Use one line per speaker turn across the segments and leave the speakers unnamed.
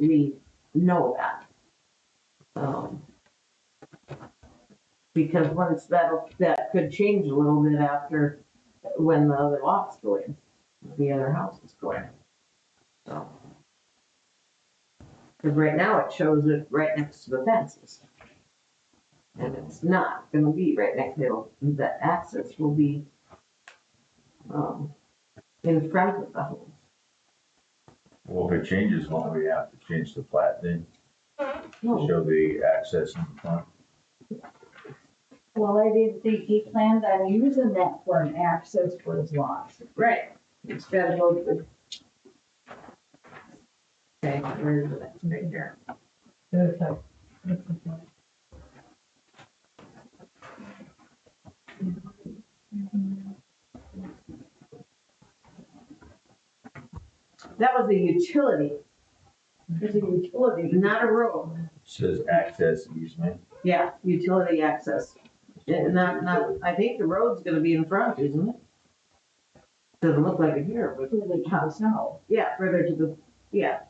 we know that. Um, Because once that'll, that could change a little bit after, when the other lots go in, the other houses go in. So. Cause right now it shows it right next to the fences. And it's not gonna be right next to, the access will be, um, in front of the home.
Well, if it changes, won't we have to change the plat then
Oh.
to
No,
show the access in the front?
Well, I didn't think he planned on using that for an access for his lots.
Right, it's gotta go to. Okay, where is it? Right there. That was a utility,
There's a utility.
not a road.
Says access easement.
Yeah, utility access. Yeah, Not, not, I think the road's gonna be in front, isn't it? Doesn't look like it here, but.
For the house now.
Yeah, further to the, yeah.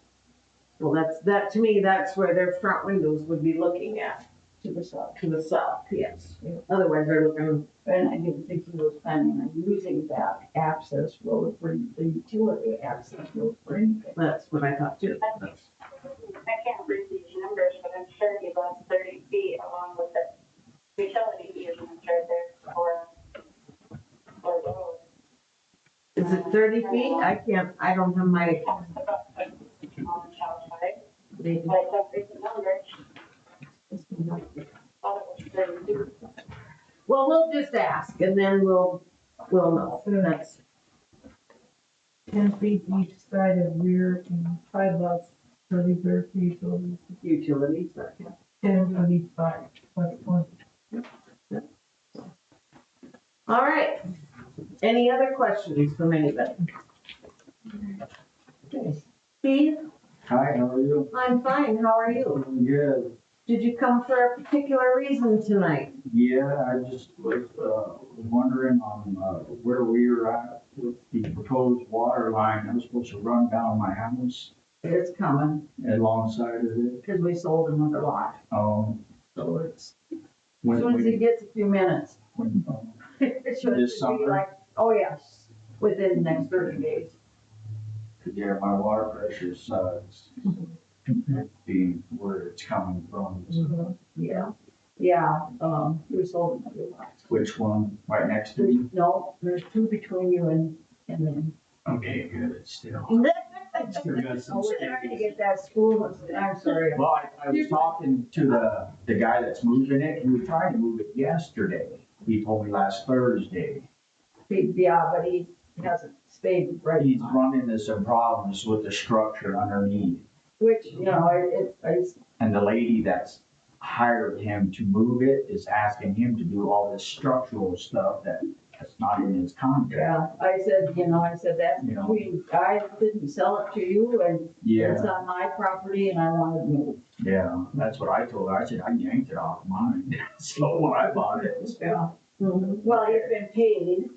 Well, that's, that, to me, that's where their front windows would be looking at,
to the south.
to the south, yes. Otherwise, they're looking,
And I didn't think he was planning on using that access road for the utility access road for anything.
that's what I thought too.
I can't read these numbers, but I'm sure he lost thirty feet along with the utility easement right there for, for road.
Is it thirty feet? I can't, I don't have my,
Talks about the, on the south side,
maybe,
but I don't read the numbers, thought it was thirty feet.
well, we'll just ask and then we'll, we'll know. That's,
ten feet each side of rear and five lots, thirty square feet, so
utilities, but yeah.
ten on each side, plus one.
All right. Any other questions from anybody? Okay. Steve,
Hi, how are you?
I'm fine. How are you?
Good.
Did you come for a particular reason tonight?
Yeah, I just was uh, wondering on uh, where we were at with the proposed water line that was supposed to run down my house
It's coming,
alongside of it.
because we sold another lot,
Um,
so it's, as
when
soon as he
we,
gets a few minutes.
when, um,
It should
This
be
summer?
like, oh yes, within the next thirty days.
yeah, my water pressure sucks. Being where it's coming from,
Mm-hmm.
so
Yeah, yeah, um, we sold another lot.
which one? Right next to
There's,
you?
no, there's two between you and, and then.
Okay, good, it's still. it's still got some
Oh, we're trying to get that school, I'm sorry.
Well, I- I was talking to the, the guy that's moving it, and we tried to move it yesterday. He told me last Thursday.
Yeah, but he hasn't stayed right
He's
on,
run into some problems with the structure underneath.
which, you know, it, it's,
And the lady that's hired him to move it is asking him to do all this structural stuff that that's not in his contract.
yeah, I said, you know, I said that,
Yeah.
we, I didn't sell it to you and it's
Yeah,
on my property and I want it moved.
yeah, that's what I told her. I said, I yanked it off mine. So when I bought it, it's-
Yeah, well, it's been paid.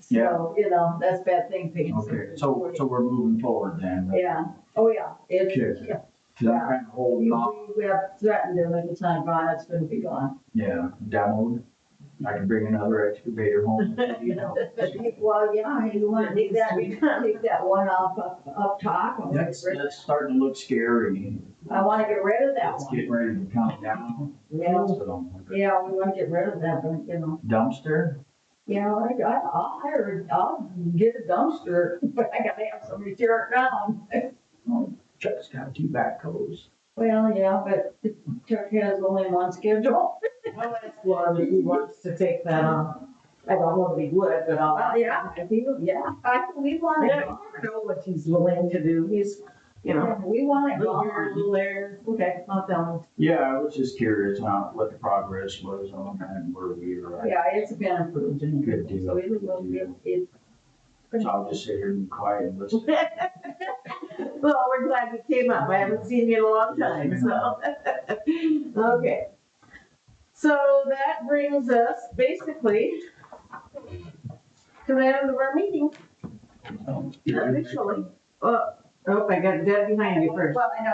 So, you know, that's a bad thing, paying.
okay, so, so we're moving forward then.
Yeah, oh, yeah, it's,
Okay.
yeah.
Cause I'm kind of
Mm.
holding off
We we have threatened him at the time, Ron, it's gonna be gone.
Yeah, demoed. I can bring another excavator home. you know.
Well, yeah, you wanna take that, take that one up, up- up top. I wanna
That's,
get rid-
that's starting to look scary.
I wanna get rid of that
It's
one.
getting ready to come down.
Yeah,
So,
yeah, we wanna get rid of that, but, you know,
Dumpster?
yeah, I, I- I'll hire, I'll get a dumpster, but I gotta have somebody tear it down.
Chuck's got two backhoes.
Well, yeah, but Chuck has only one schedule.
I'll ask Laura if he wants to take that on. I don't know if he would, but I'll.
Well,
ask.
yeah, I feel, yeah, I, we
I
want it,
don't know what he's willing to do. He's, you know,
gone. we want
a
it
little here, a
gone.
little there.
Okay,
Not that one.
Yeah, I was just curious on what the progress was on that and where we were at.
yeah, it's been approved and
Good
everything,
deal.
so it will be, it.
So I'll just sit here and be quiet and listen.
Well, we're glad you came up. I haven't seen you in a long time, so. Okay. So that brings us basically to the end of our meeting.
Um,
Officially. Uh,
Oh, I got dead behind you first.
Well, I know